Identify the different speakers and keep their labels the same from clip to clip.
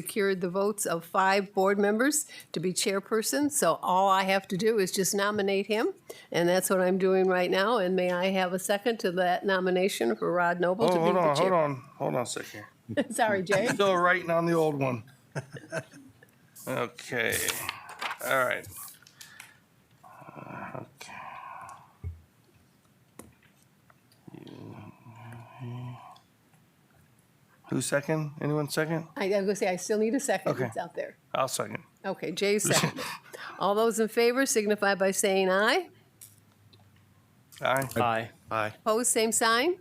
Speaker 1: secured the votes of five board members to be chairperson, so all I have to do is just nominate him, and that's what I'm doing right now, and may I have a second to that nomination for Rod Noble to
Speaker 2: Oh,
Speaker 1: be
Speaker 2: hold
Speaker 1: the
Speaker 2: on, hold
Speaker 1: chair?
Speaker 2: on, hold on a second.
Speaker 1: Sorry, Jay.
Speaker 2: Still writing on the old one. Okay, all right. Okay. Who second? Anyone second?
Speaker 1: I I was gonna say, I still need a second,
Speaker 2: Okay.
Speaker 1: it's out there.
Speaker 2: I'll second.
Speaker 1: Okay, Jay seconded. All those in favor signify by saying aye.
Speaker 2: Aye.
Speaker 3: Aye. Aye.
Speaker 1: Opposed, same sign.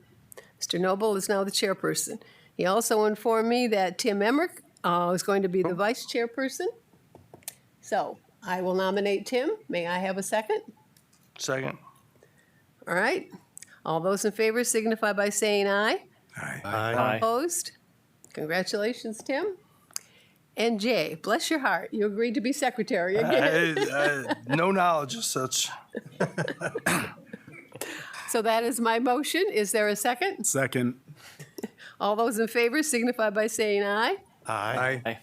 Speaker 1: Mr. Noble is now the chairperson. He also informed me that Tim Emmerich uh, is going to be the vice chairperson. So I will nominate Tim. May I have a second?
Speaker 2: Second.
Speaker 1: All right. All those in favor signify by saying aye.
Speaker 3: Aye.
Speaker 1: Opposed? Congratulations, Tim. And Jay, bless your heart, you agreed to be secretary again.
Speaker 2: I- I- No knowledge as such.
Speaker 1: So that is my motion. Is there a second?
Speaker 4: Second.
Speaker 1: All those in favor signify by saying aye.
Speaker 4: Aye.
Speaker 3: Aye.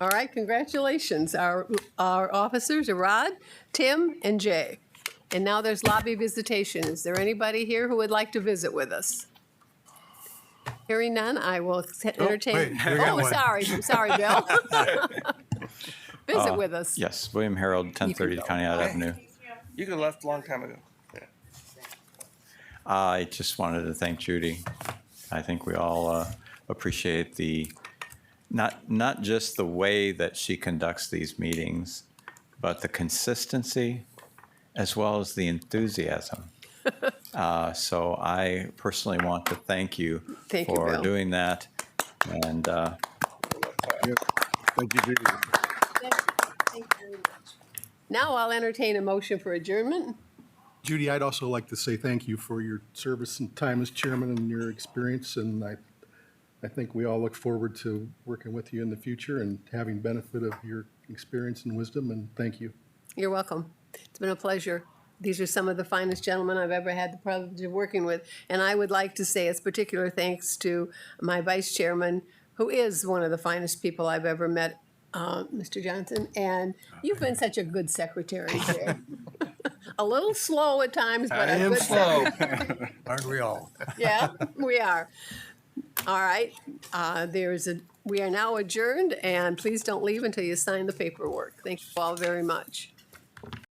Speaker 1: All right, congratulations, our, our officers, are Rod, Tim, and Jay. And now there's lobby visitation. Is there anybody here who would like to visit with us? Hearing none, I will entertain.
Speaker 4: wait, we got
Speaker 1: Oh,
Speaker 4: one.
Speaker 1: sorry, sorry, Bill. Visit with us.
Speaker 5: Yes, William Harold, 1030
Speaker 1: go.
Speaker 5: Conneaut Avenue.
Speaker 2: You could have left a long time ago.
Speaker 5: I just wanted to thank Judy. I think we all uh, appreciate the, not, not just the way that she conducts these meetings, but the consistency as well as the enthusiasm. Uh, So I personally want to thank you
Speaker 1: Thank you,
Speaker 5: for
Speaker 1: Bill.
Speaker 5: doing that. And uh,
Speaker 4: Thank you, Judy.
Speaker 1: Now I'll entertain a motion for adjournment.
Speaker 4: Judy, I'd also like to say thank you for your service and time as chairman and your experience, and I, I think we all look forward to working with you in the future and having benefit of your experience and wisdom, and thank you.
Speaker 1: You're welcome. It's been a pleasure. These are some of the finest gentlemen I've ever had the privilege of working with. And I would like to say a particular thanks to my vice chairman, who is one of the finest people I've ever met, uh, Mr. Johnson. And you've been such a good secretary, Chair. A little slow at times, but a good secretary.
Speaker 4: Aren't we all?
Speaker 1: Yeah, we are. All right, uh, there is a, we are now adjourned, and please don't leave until you sign the paperwork. Thank you all very much.